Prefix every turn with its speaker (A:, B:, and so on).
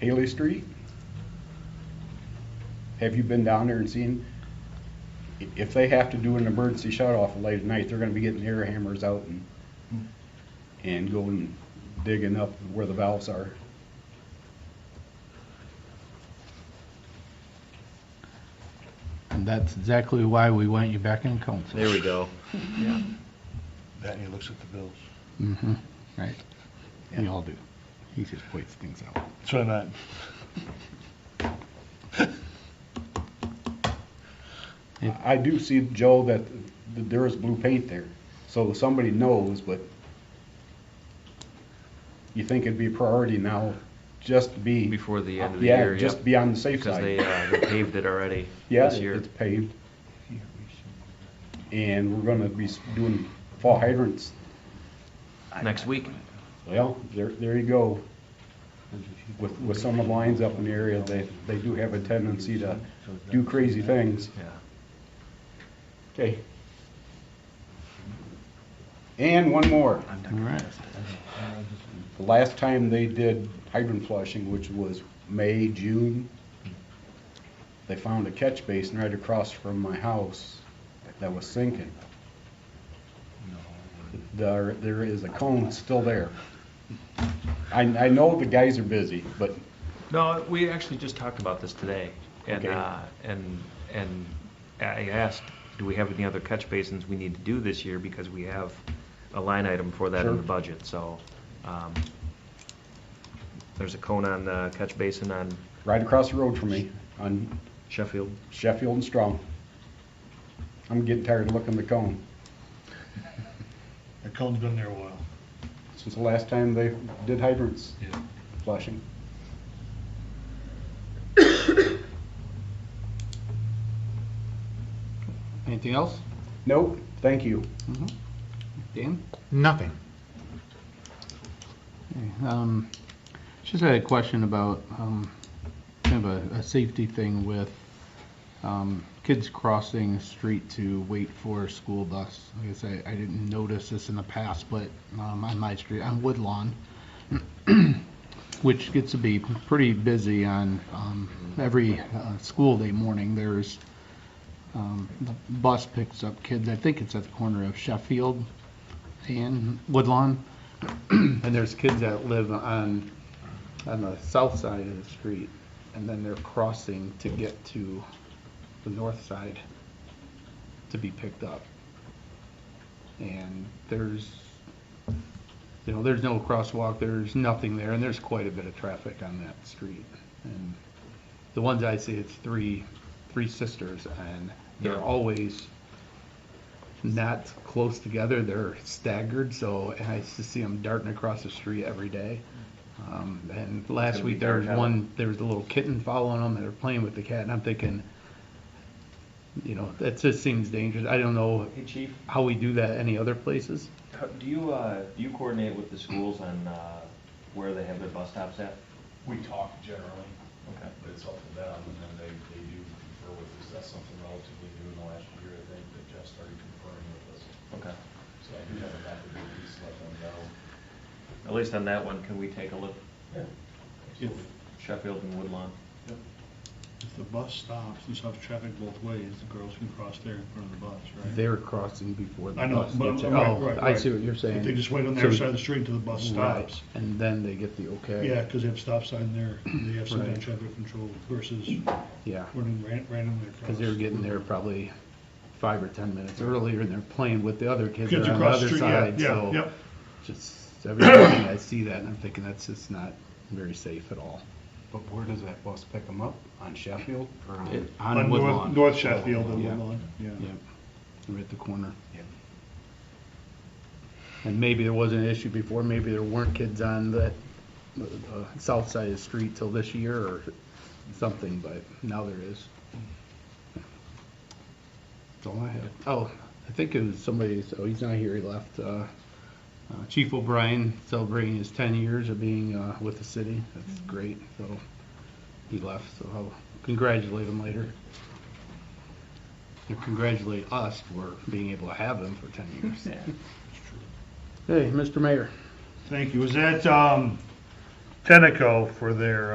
A: Haley Street? Have you been down there and seen, i- if they have to do an emergency shut off late at night, they're gonna be getting air hammers out and, and going digging up where the valves are.
B: And that's exactly why we want you back in council.
C: There we go.
D: That and he looks at the bills.
B: hmm right. We all do. He just points things out.
D: Try not.
B: Yeah.
A: I do see, Joe, that th- there is blue paint there, so somebody knows, but you think it'd be a priority now, just to be.
C: Before the end of the
A: Yeah,
C: year,
A: just
C: yep.
A: be on the safe
C: Because they,
A: side.
C: uh, they paved it already
A: Yeah,
C: this year.
A: it's paved, and we're gonna be s- doing fall hydrants.
C: Next week.
A: Well, there, there you go. With, with some of the lines up in the area, they, they do have a tendency to do crazy things.
C: Yeah.
A: Okay. And one more.
B: All right.
A: The last time they did hydrant flushing, which was May, June, they found a catch basin right across from my house that was sinking. There, there is a cone still there. I, I know the guys are busy, but
C: No, we actually just talked about this today, and,
A: Okay.
C: uh, and, and I asked, do we have any other catch basins we need to do this year, because we have a line item for that in the
A: Sure.
C: budget, so, um, there's a cone on, uh, catch basin on
A: right across the road from me on
C: Sheffield.
A: Sheffield and Strong. I'm getting tired of looking at the cone.
D: That cone's been there a while.
A: Since the last time they did hydrants
D: Yeah.
A: flushing.
B: Anything else?
A: Nope, thank you.
B: Dan?
E: Nothing.
B: Um, Just had a question about um, kind of a, a safety thing with um, kids crossing the street to wait for a school bus. Like I say, I didn't notice this in the past, but um, on my street, on Woodlawn, which gets to be pretty busy on um, every uh, school day morning, there's um, the bus picks up kids. I think it's at the corner of Sheffield and Woodlawn and there's kids that live on, on the south side of the street, and then they're crossing to get to the north side to be picked up. And there's, you know, there's no crosswalk, there's nothing there, and there's quite a bit of traffic on that street. And the ones I see, it's three, three sisters, and
C: Yeah.
B: they're always not close together, they're staggered, so and I just see them darting across the street every day. Um, and last
C: gonna be
B: week, there was
C: dark out.
B: one, there was a little kitten following them, and they're playing with the cat, and I'm thinking, you know, that just seems dangerous, I don't know
F: Hey, Chief,
B: how we do that any other places.
F: how- do you, uh, do you coordinate with the schools on, uh, where they have their bus stops at?
G: We talk generally,
F: Okay.
G: but it's up to them, and then they, they do confer with us. That's something relatively new in the last year, I think, that Jeff started conferring with us.
F: Okay.
G: So I do have a method of these, let them know.
F: At least on that one, can we take a look,
D: If,
F: Sheffield and Woodlawn?
D: if the bus stops and stops traffic both ways, the girls can cross there in front of the bus, right?
B: They're crossing before the
D: I know,
B: bus.
D: but I'm-
B: gets
D: I'm
B: there.
D: right,
B: Oh,
D: right,
B: I see
D: right.
B: what you're saying.
D: If they just wait on the
B: So-
D: other side of the street until the bus
B: Right,
D: stops.
B: And then they get the okay.
D: Yeah, because they have stop sign there, and they have some kind
B: Right.
D: of traffic control versus
B: Yeah,
D: running ran- randomly across.
B: because they're getting there probably five or 10 minutes earlier, and they're playing with the other kids that
D: Kids
B: are on the
D: across the
B: other
D: street, yeah,
B: side,
D: yeah,
B: so
D: yep.
B: just every morning I see that, and I'm thinking, that's just not very safe at all.
A: But where does that bus pick them up? On Sheffield or on?
B: It-
D: On
B: On
D: North-
B: Woodlawn.
D: North Sheffield and
B: Yeah.
D: Woodlawn, yeah.
B: Yep, right at the corner.
A: Yep.
B: And maybe there wasn't an issue before, maybe there weren't kids on that, the the south side of the street till this year or something, but now there is. That's all I have. Oh, I think it was somebody, so he's not here, he left. uh, uh, Chief O'Brien celebrating his 10 years of being uh, with the city. That's great, so he left, so I'll congratulate him later to congratulate us for being able to have them for 10 years. Hey, Mr. Mayor.
D: Thank you. Was that, um, Tenneco for their,